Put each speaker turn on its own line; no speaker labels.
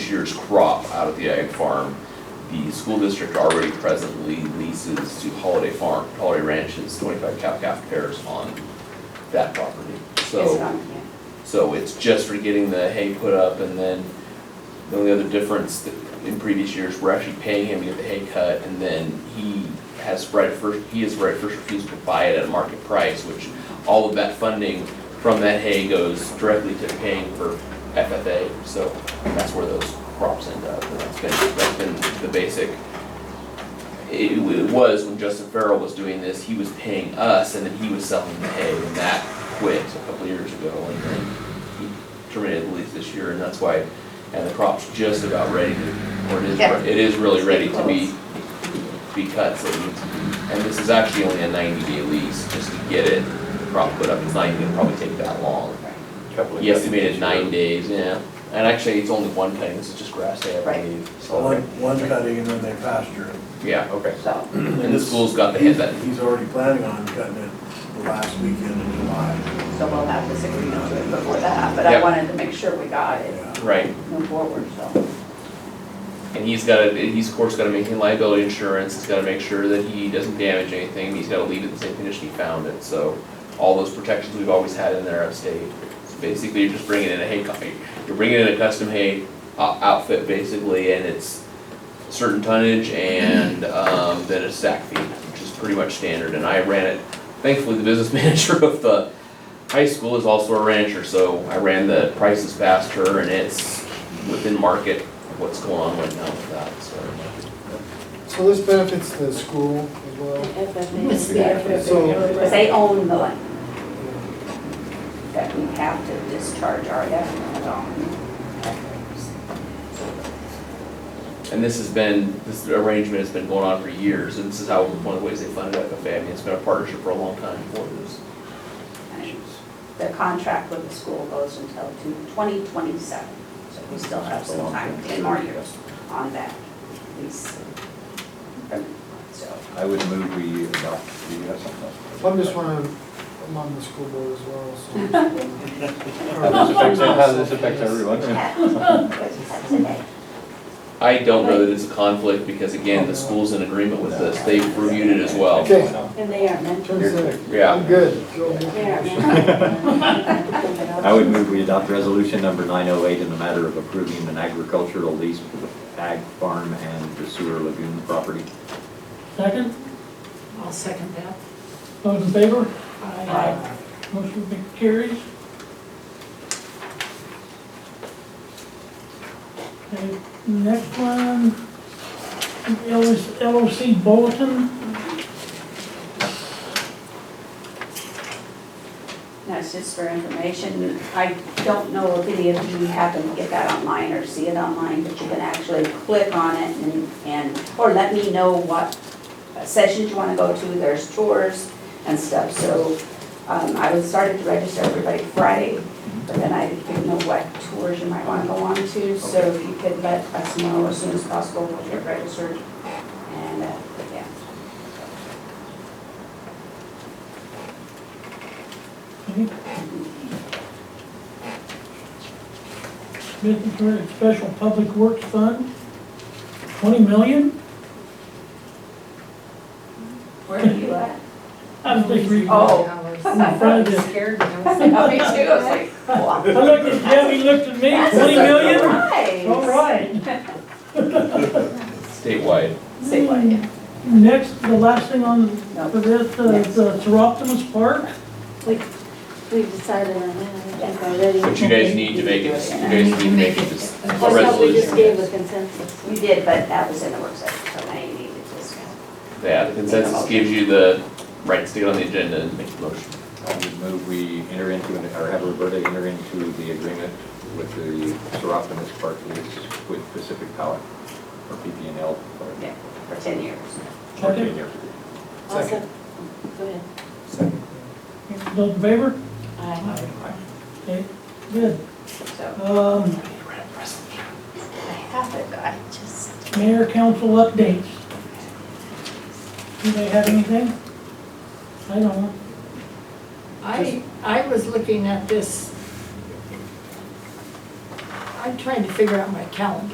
year's crop out at the Ag Farm. The school district already presently leases to Holiday Farm, Holiday Ranches, twenty-five cow calf pairs on that property.
Is
So.
it on here?
So it's just for getting the hay put up and then the only other difference that in previous years, we're actually paying him to get the hay cut and then he has right of first, he has right of first refusal to buy it at market price, which all of that funding from that hay goes directly to paying for FFA. So that's where those crops end up. And that's been, that's been the basic it it was when Justin Farrell was doing this, he was paying us and then he was selling the hay and that quit a couple of years ago and then he terminated the lease this year and that's why, and the crop's just about ready to, or it is,
Yeah.
it is really ready to be,
Close.
be cut, so it needs to be. And this is actually only a ninety day lease, just to get it, the crop put up, it's not even gonna probably take that long.
Couple of
He estimated
days.
nine days, yeah, and actually, it's only one cutting, this is just grass hay, I
Right.
believe, so,
Oh,
One, one cutting and then they pasture it.
yeah.
Okay.
So,
And the school's got the head that,
He's already planning on cutting it the last weekend in July.
so we'll have this agreement to it before that, but I
Yep.
wanted to make sure we got it,
Yeah.
right,
move forward, so.
And he's gotta, he's of course gotta maintain liability insurance, he's gotta make sure that he doesn't damage anything, he's gotta leave it in the same condition he found it, so all those protections we've always had in there have stayed. So Basically, you're just bringing in a hay, co- you're bringing in a custom hay o- outfit basically, and it's certain tonnage and, um, then a sack fee, which is pretty much standard, and I ran it. Thankfully, the business manager of the high school is also a rancher, so I ran the prices past her and it's within market what's going on right now with that, so.
So this benefits the school as well?
It's there.
So-
Because they own the land that we have to discharge our effort on.
And this has been, this arrangement has been going on for years, and this is how, one of the ways they funded FFA, I mean, it's been a partnership for a long time for this.
The contract with the school goes until two- 2027, so we still have some time, 10 more years on that lease. So,
I would move we adopt, do you have something else?
I'm just one of, I'm on the school board as well, so.
How this affects, how this affects everyone.
yeah, because that's today.
I don't know that it's a conflict, because again, the school's in agreement with this, they've reviewed it as well.
Okay.
And they are meant to.
Turns out,
Yeah.
I'm good. Go
They are
ahead.
meant to.
I would move we adopt resolution number nine oh eight in the matter of approving an agricultural lease for the ag farm and the sewer lagoon property.
Second,
I'll second that.
those in favor?
Aye.
Motion carries. Okay, Next one, LOC bulletin.
That's just for information. I don't know if any of you happen to get that online or see it online, but you can actually click on it and, and, or let me know what sessions you wanna go to. There's tours and stuff, so, um, I was started to register everybody Friday, but then I didn't know what tours you might wanna go on to, so if you could let us know as soon as possible, we'll get registered. And, uh, yeah,
Business Credit Special Public Works Fund, twenty million?
where are you at?
I was just reading. I
Oh.
In front of you.
Scared
Me too,
now.
I was like, what?
looked at Debbie, looked at me, twenty million?
Nice.
All right.
Statewide,
Say what?
Mm. Next, the last thing on,
No.
for this, uh,
Next.
the Seroptimus Park.
We've decided on that already.
but you guys need to make it, you guys need to make it this a
Well, no, we just gave a
resolution.
consensus.
You did, but that was in the work session, so now you need to just.
Yeah, the consensus gives you the right to get on the agenda and make the motion.
I would move we enter into, an- or have Roberta enter into the agreement with the Seroptimus Park lease with Pacific Power, or PP&L, or
Yeah, for ten years.
Okay.
Awesome. Go ahead.
Those in favor?
Aye.
Okay, good.
So
Um,
I have it, I just.
Mayor council updates. Do they have anything? I don't.
I, I was looking at this. I'm trying to figure out my calendar.